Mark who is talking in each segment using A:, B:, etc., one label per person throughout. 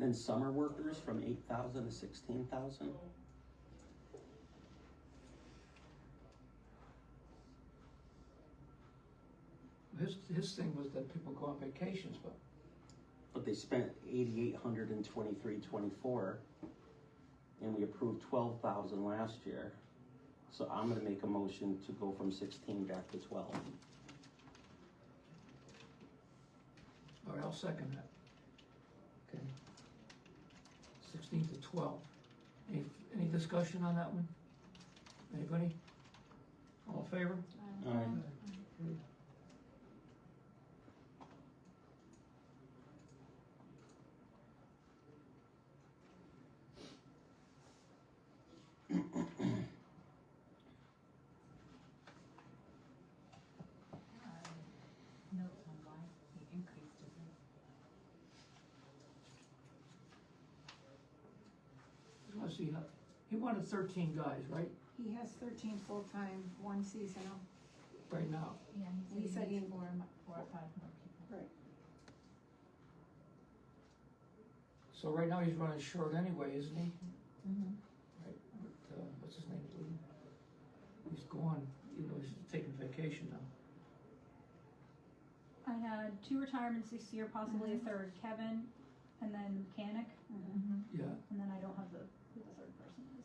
A: Then summer workers from eight thousand to sixteen thousand.
B: His, his thing was that people go on vacations, but
A: But they spent eighty-eight hundred in twenty-three, twenty-four, and we approved twelve thousand last year. So I'm gonna make a motion to go from sixteen back to twelve.
B: All right, I'll second that. Okay. Sixteen to twelve. Any, any discussion on that one? Anybody? All in favor?
A: Alright.
C: Notes on why he increased his rate.
B: Let's see, uh, he wanted thirteen guys, right,
D: He has thirteen full-time, one seasonal.
B: right now.
C: Yeah,
D: He said he-
C: needs Four, mo- four or five more people.
B: So right now he's running short anyway, isn't he?
C: Mm-hmm.
B: Right, but, uh, what's his name, Lee? He's gone, you know, he's taking vacation now.
E: I had two retirements this year, possibly a third, Kevin, and then mechanic,
C: Mm-hmm.
B: Yeah,
E: and then I don't have the, who the third person is.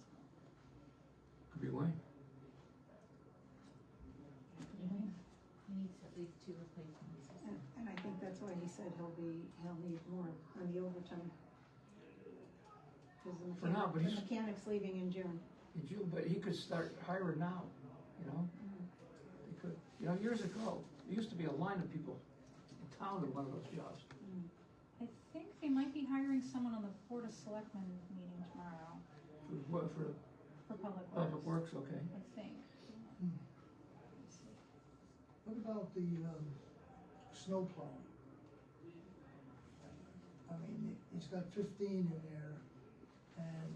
B: could be Wayne.
C: He needs at least two replacements.
D: And, and I think that's why he said he'll be, he'll need more on the overtime. Cause the
B: For now,
D: mechanic,
B: but
D: the
B: he's-
D: mechanic's leaving in June.
B: In June, but he could start hiring now, you know? They could, you know, years ago, there used to be a line of people in town to one of those jobs.
E: I think they might be hiring someone on the Board of Selectmen meeting tomorrow
B: For, what- for
E: for Public
B: public
E: Works,
B: works, okay.
E: I think.
F: Hmm.
E: Let's see.
F: What about the, um, snow plowing? I mean, he- he's got fifteen in there, and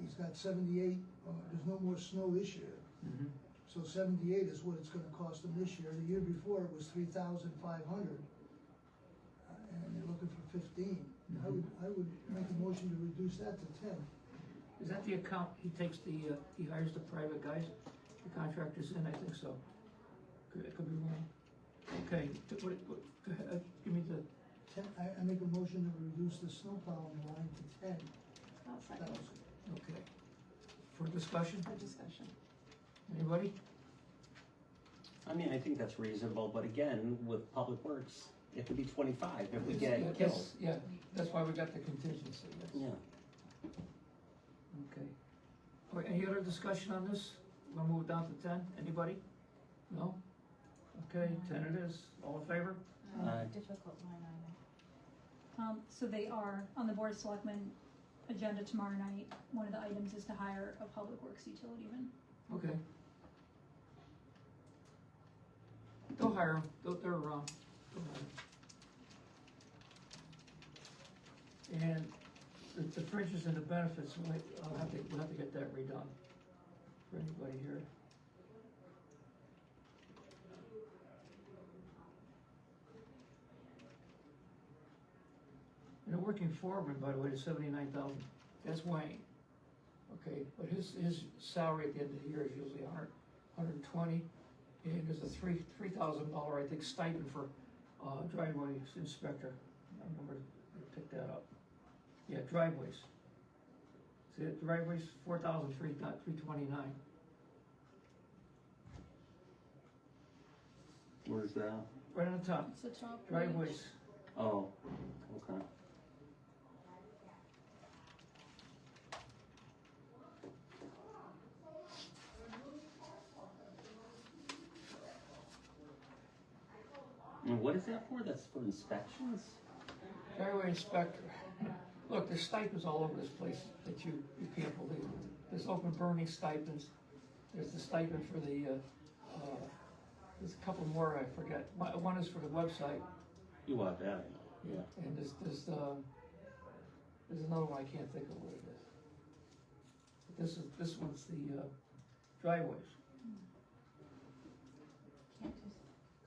F: he's got seventy-eight, uh, there's no more snow this year.
B: Mhm.
F: So seventy-eight is what it's gonna cost him this year, the year before it was three thousand five hundred. Uh, And they're looking for fifteen, I
B: Mm-hmm.
F: would, I would make a motion to reduce that to ten.
B: Is that the account, he takes the, uh, he hires the private guys, the contractors in, I think so. Could, I could be wrong. Okay, t- what, what, go ahead, uh, give me the,
F: Ten, I, I make a motion to reduce the snow plowing line to ten
D: I'll second
F: thousand.
B: okay. For discussion,
D: for discussion.
B: anybody?
A: I mean, I think that's reasonable, but again, with Public Works, it could be twenty-five if we
B: It's-
A: get
B: that's-
A: killed.
B: Yeah, that's why we got the contingency, yes.
A: Yeah,
B: Okay. All right, any other discussion on this? We'll move down to ten, anybody? No? Okay, ten it is, all in favor?
C: Uh,
A: Aye.
C: Difficult line item.
E: Um, so they are on the Board of Selectmen agenda tomorrow night. One of the items is to hire a Public Works utility man.
B: Okay. They'll hire them, they'll, they're around, they'll hire 'em. And the, the fringes and the benefits, we'll, I'll have to, we'll have to get that redone for anybody here. And a working foreman, by the way, is seventy-nine thousand, that's Wayne. Okay, but his, his salary at the end of the year is usually a hundred, hundred and twenty, and there's a three, three thousand dollar, I think, stipend for, uh, driveway inspector. I remember I picked that up. Yeah, driveways. See, that driveways, four thousand, three, three twenty-nine.
A: where's that?
B: Right on the top,
E: It's the top. right?
B: driveways,
A: Oh, okay. And what is that for? That's for inspections?
B: driveway inspector. Look, there's stipends all over this place that you, you can't believe. There's open burning stipends, there's the stipend for the, uh, uh, there's a couple more I forget. One, one is for the website,
A: You want that? Yeah.
B: And there's, there's, um, there's another one, I can't think of what it is. But This is, this one's the, uh, driveways.